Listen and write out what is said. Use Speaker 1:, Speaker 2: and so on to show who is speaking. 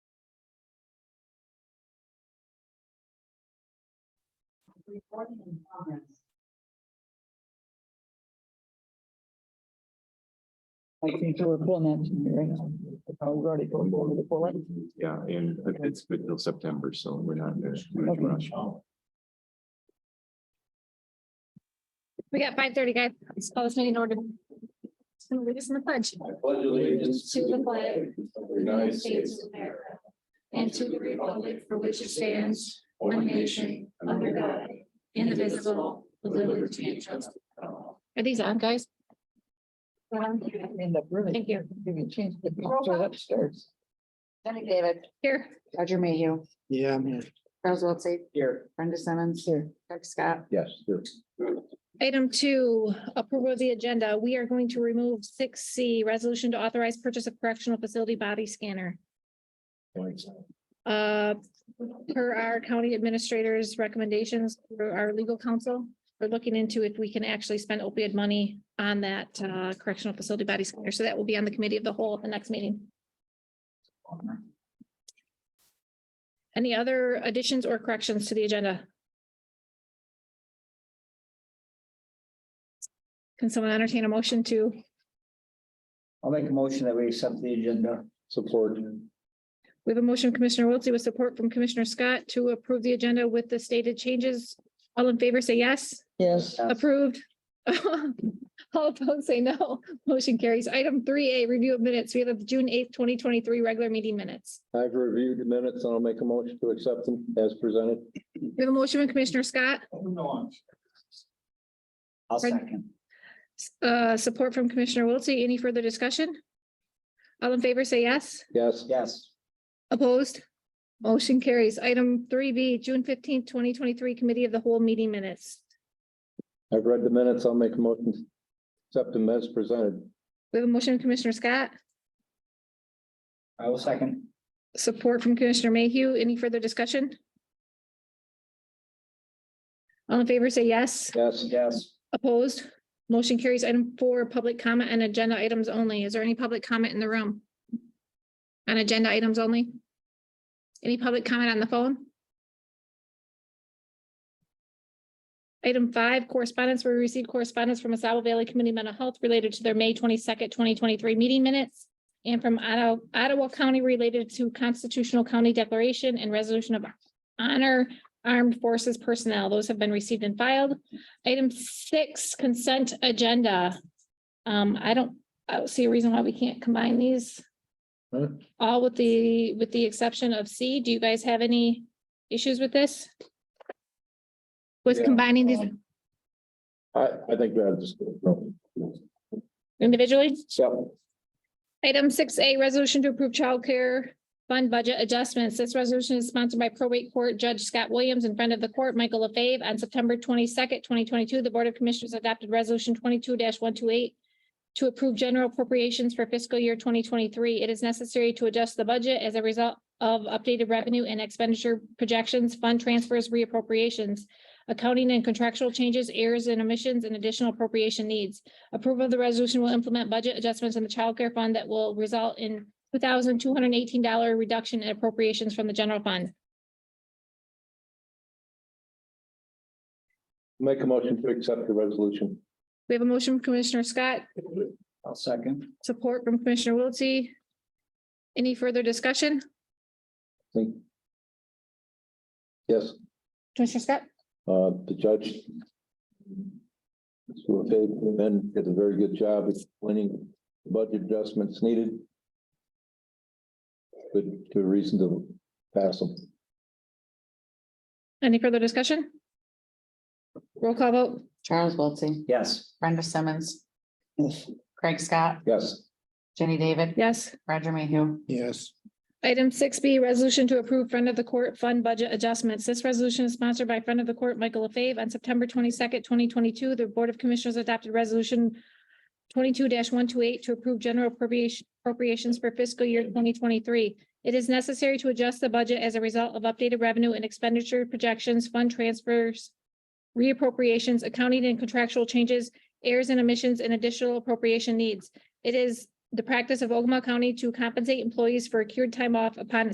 Speaker 1: Recording in progress.
Speaker 2: I think so we're pulling that, to me, right? Oh, we've already pulled over the pull it.
Speaker 3: Yeah, and it's been till September, so we're not. in a
Speaker 2: Okay.
Speaker 3: rush.
Speaker 4: We got five thirty, guys. Let's call this meeting in order. Gonna lead us in the pledge.
Speaker 3: I pledge allegiance
Speaker 4: To the flag
Speaker 3: of the United States.
Speaker 4: of America And to the republic for which it stands, one nation, under God, indivisible, with liberty and justice. Are these on, guys? Um,
Speaker 2: End up really
Speaker 4: Thank you.
Speaker 2: giving change the picture upstairs.
Speaker 5: Jenny David,
Speaker 4: Here,
Speaker 5: Roger Mayhew,
Speaker 2: Yeah, man.
Speaker 5: Charles Wiltie,
Speaker 2: Here.
Speaker 5: Brenda Simmons,
Speaker 2: Here.
Speaker 5: Doug Scott.
Speaker 3: Yes, sure.
Speaker 4: item two, approval of the agenda. We are going to remove six C, resolution to authorize purchase of correctional facility body scanner.
Speaker 3: Thanks.
Speaker 4: Uh, per our county administrators' recommendations, through our legal counsel, we're looking into if we can actually spend opioid money on that uh, correctional facility body scanner. So that will be on the committee of the whole at the next meeting. Any other additions or corrections to the agenda? Can someone entertain a motion to,
Speaker 6: I'll make a motion that we accept the agenda.
Speaker 3: Support.
Speaker 4: we have a motion from Commissioner Wiltse with support from Commissioner Scott to approve the agenda with the stated changes. All in favor, say yes.
Speaker 2: Yes,
Speaker 4: Approved. All opposed say no. Motion carries. Item three A, review of minutes. We have the June eighth, twenty twenty-three regular meeting minutes.
Speaker 7: I've reviewed the minutes and I'll make a motion to accept them as presented.
Speaker 4: We have a motion from Commissioner Scott,
Speaker 6: I'll second.
Speaker 4: s- uh, support from Commissioner Wiltse. Any further discussion? All in favor say yes.
Speaker 7: Yes,
Speaker 6: Yes,
Speaker 4: Opposed? Motion carries. Item three B, June fifteenth, twenty twenty-three, committee of the whole meeting minutes.
Speaker 7: I've read the minutes. I'll make a motion to accept them as presented.
Speaker 4: We have a motion from Commissioner Scott,
Speaker 6: I will second.
Speaker 4: support from Commissioner Mayhew. Any further discussion? All in favor say yes.
Speaker 7: Yes,
Speaker 6: Yes,
Speaker 4: Opposed? Motion carries item four, public comment and agenda items only. Is there any public comment in the room? On agenda items only? Any public comment on the phone? Item five, correspondence. We received correspondence from Asaba Valley Community Mental Health related to their May twenty-second, twenty twenty-three meeting minutes and from Ottawa, Ottawa County related to constitutional county declaration and resolution of honor armed forces personnel. Those have been received and filed. Item six, consent agenda. Um, I don't, I don't see a reason why we can't combine these.
Speaker 7: Huh?
Speaker 4: All with the, with the exception of C. Do you guys have any issues with this? With
Speaker 7: Yeah,
Speaker 4: combining these
Speaker 7: um, I, I think that is.
Speaker 4: individually?
Speaker 7: So,
Speaker 4: Item six A, resolution to approve childcare fund budget adjustments. This resolution is sponsored by probate court Judge Scott Williams in front of the court, Michael LaFave. On September twenty-second, twenty twenty-two, the Board of Commissioners adopted resolution twenty-two one two eight to approve general appropriations for fiscal year twenty twenty-three. It is necessary to adjust the budget as a result of updated revenue and expenditure projections, fund transfers, reappropriations, accounting and contractual changes, errors and omissions, and additional appropriation needs. Approval of the resolution will implement budget adjustments in the child care fund that will result in two thousand two hundred and eighteen dollar reduction in appropriations from the general fund.
Speaker 7: make a motion to accept the resolution.
Speaker 4: We have a motion from Commissioner Scott,
Speaker 6: I'll second.
Speaker 4: support from Commissioner Wiltse. Any further discussion?
Speaker 7: Think. Yes,
Speaker 4: Commissioner Scott?
Speaker 7: uh, the judge. So, okay, then did a very good job explaining the budget adjustments needed. Good, good reason to pass them.
Speaker 4: Any further discussion? Roll call vote.
Speaker 5: Charles Wiltie,
Speaker 6: Yes.
Speaker 5: Brenda Simmons, Craig Scott,
Speaker 7: Yes.
Speaker 5: Jenny David,
Speaker 4: Yes.
Speaker 5: Roger Mayhew.
Speaker 2: yes.
Speaker 4: Item six B, resolution to approve friend of the court fund budget adjustments. This resolution is sponsored by friend of the court, Michael LaFave. On September twenty-second, twenty twenty-two, the Board of Commissioners adopted resolution twenty-two one two eight to approve general appropriation appropriations for fiscal year twenty twenty-three. It is necessary to adjust the budget as a result of updated revenue and expenditure projections, fund transfers, reappropriations, accounting and contractual changes, errors and omissions, and additional appropriation needs. It is the practice of Ogama County to compensate employees for accrued time off upon